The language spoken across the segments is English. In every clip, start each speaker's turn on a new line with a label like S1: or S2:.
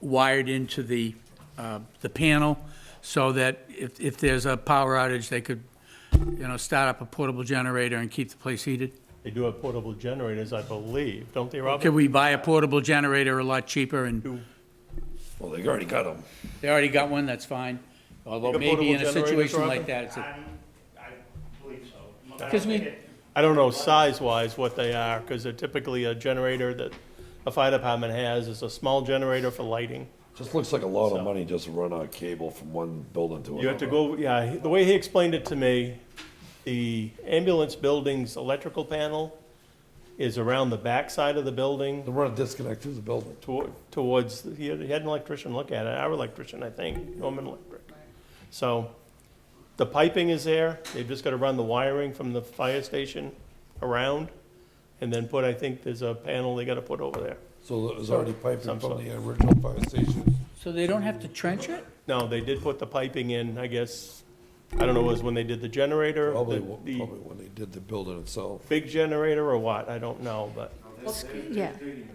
S1: wired into the, uh, the panel so that if, if there's a power outage, they could, you know, start up a portable generator and keep the place heated?
S2: They do have portable generators, I believe, don't they, Robert?
S1: Could we buy a portable generator a lot cheaper and
S3: Well, they already got them.
S1: they already got one, that's fine. Although
S2: Got
S1: maybe in a
S2: portable generators,
S1: situation
S2: Robin?
S1: like that, it's a,
S4: I believe so.
S1: because we,
S2: I don't know size-wise what they are, because they're typically a generator that a fire department has, is a small generator for lighting.
S3: Just looks like a lot of money just to run a cable from one building to another.
S2: You have to go, yeah, he- the way he explained it to me, the ambulance building's electrical panel is around the backside of the building
S3: They run a disconnect through the building.
S2: toward, towards, he had he had an electrician look at it, our electrician, I think, Norman Electric. So the piping is there, they've just gotta run the wiring from the fire station around and then put, I think there's a panel they gotta put over there.
S3: So it was already piping
S2: Some
S3: from
S2: sort.
S3: the original fire station.
S1: so they don't have to trench it?
S2: No, they did put the piping in, I guess, I don't know, it was when they did the generator,
S3: Probably,
S2: the-
S3: w-
S2: the
S3: probably when they did the building itself.
S2: big generator or what, I don't know, but.
S5: Yeah.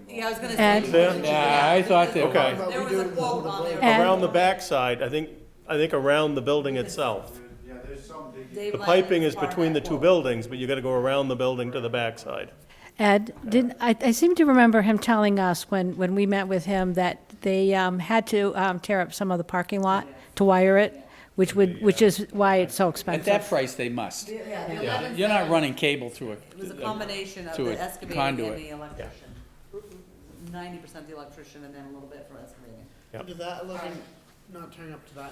S6: Yeah, I was gonna
S5: Ed?
S6: say.
S2: There,
S1: Yeah, I thought they
S2: Okay.
S6: There was a quote on there,
S5: Ed?
S2: around the backside, I think, I think around the building itself.
S4: Yeah, there's some big.
S6: Dave
S2: The
S6: Lennon
S2: piping
S6: is
S2: is
S6: part of
S2: between the
S6: that
S2: two
S6: quote.
S2: buildings, but you gotta go around the building to the backside.
S5: Ed, didn't, I, I seem to remember him telling us when, when we met with him that they um, had to um, tear up some of the parking lot to wire it, which would, which is why it's so
S1: At that
S5: expensive.
S1: price, they must.
S6: Yeah, the eleven,
S1: You're not running cable through it.
S6: it was a combination of
S1: To a
S6: the excavating and
S1: conduit.
S6: the electrician. Ninety percent the electrician and then a little bit for excavating.
S2: Yep.
S7: Under that eleven, not turning up to that,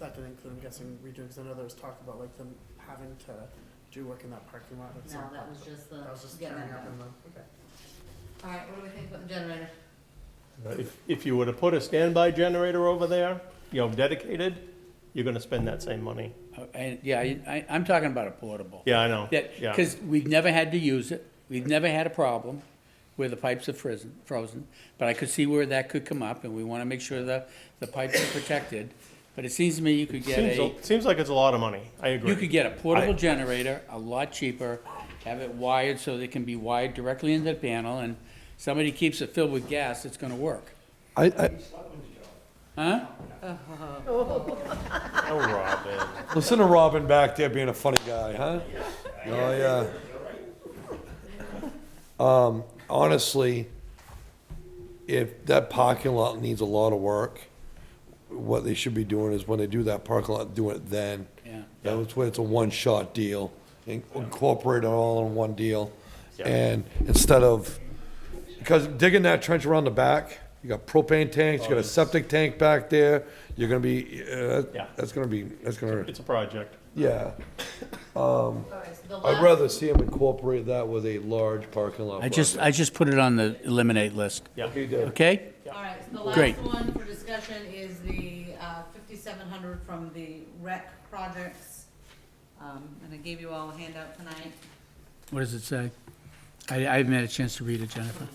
S7: that didn't include, I'm guessing, redoing, because I know there was talk about like them having to do work in that parking lot at some
S6: No,
S7: point.
S6: that was just the.
S7: That was just
S6: getting
S7: turning
S6: that
S7: up
S6: done.
S7: and then, okay.
S6: All right, what do we think about the generator?
S2: If, if you were to put a standby generator over there, you know, dedicated, you're gonna spend that same money.
S1: Uh, And, yeah, I- I, I'm talking about a portable.
S2: Yeah, I know.
S1: That,
S2: Yeah.
S1: because we've never had to use it, we've never had a problem where the pipes are frozen, frozen. But I could see where that could come up, and we wanna make sure the, the pipes are protected. But it seems to me you could get
S2: Seems,
S1: a,
S2: a- seems like it's a lot of money, I
S1: you could
S2: agree.
S1: get a portable generator, a lot cheaper, have it wired so they can be wired directly into the panel, and somebody keeps it filled with gas, it's gonna work.
S3: I, I,
S1: Huh?
S2: Oh, Robin.
S3: listen to Robin back there being a funny guy, huh? Oh, yeah. Um, honestly, if that parking lot needs a lot of work, what they should be doing is when they do that parking lot, do it then.
S1: Yeah.
S3: That was when it's a one-shot deal, in- incorporate it all in one deal.
S2: Yeah.
S3: And instead of, because digging that trench around the back, you got propane tanks, you got a septic tank back there, you're gonna be, uh,
S2: Yeah.
S3: that's gonna be, that's gonna,
S2: It's a project.
S3: yeah.
S6: All right, so the
S3: I'd
S6: last,
S3: rather see them incorporate that with a large parking lot.
S1: I just,
S3: project.
S1: I just put it on the eliminate list,
S2: Yeah.
S3: Okay, Dave.
S1: okay?
S6: all right, so the
S1: Great.
S6: last one for discussion is the uh, fifty-seven hundred from the rec projects. Um, and I gave you all a handout tonight.
S1: What does it say? I, I haven't had a chance to read it, Jennifer.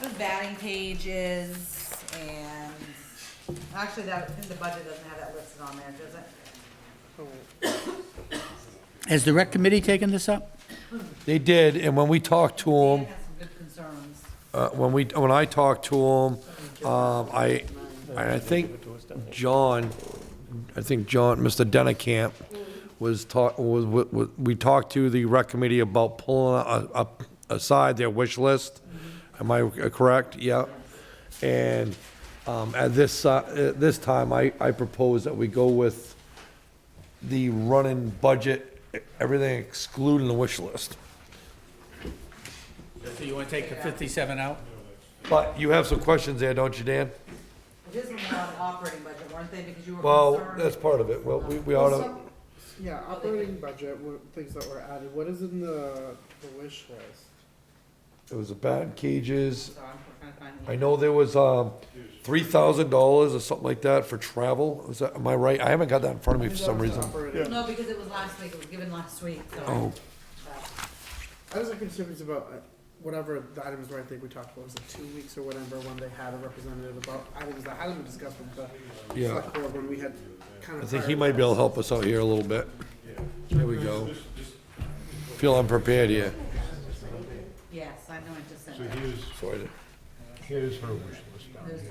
S6: The batting pages and, actually that, I think the budget doesn't have that listed on there, does it?
S1: Has the rec committee taken this up?
S3: They did, and when we talked to
S6: It
S3: them,
S6: has some good concerns.
S3: uh, when we, when I talked to them, um, I, I think John, I think John, Mr. Denikamp was talk, was, was, we talked to the rec committee about pulling a- up, aside their wish list. Am I correct? Yeah. And, um, at this, uh, at this time, I, I propose that we go with the running budget, everything excluding the wish list.
S1: So you want to take the 57 out?
S3: But you have some questions there, don't you, Dan?
S6: It is isn't on the operating budget, weren't they, because you were
S3: Well,
S6: concerned?
S3: that's part of it. Well, we, we ought
S7: Well,
S3: to,
S7: some- Yeah, operating budget, what- things that were added, what is in the, the wish list?
S3: it was about cages.
S6: Sorry, I'm trying to find the-
S3: I know there was, um, three thousand dollars or something like that for travel. Is that, am I right? I haven't got that in front of me for some reason.
S7: Operating-
S6: No, because it was last week, it was given last week, so.
S3: Oh.
S7: I was like confused about uh, whatever the items were, I think we talked about, was it two weeks or whatever, when they had a representative about items that hadn't been discussed with the
S3: Yeah.
S7: select board, when we had kind
S3: I
S7: of.
S3: think he might be able to help us out here a little bit. There we go. Feel unprepared here.
S6: Yes, I know, I just said that.
S4: Here's,
S3: Sorry.
S4: here's her wish list. down
S6: There's
S4: here.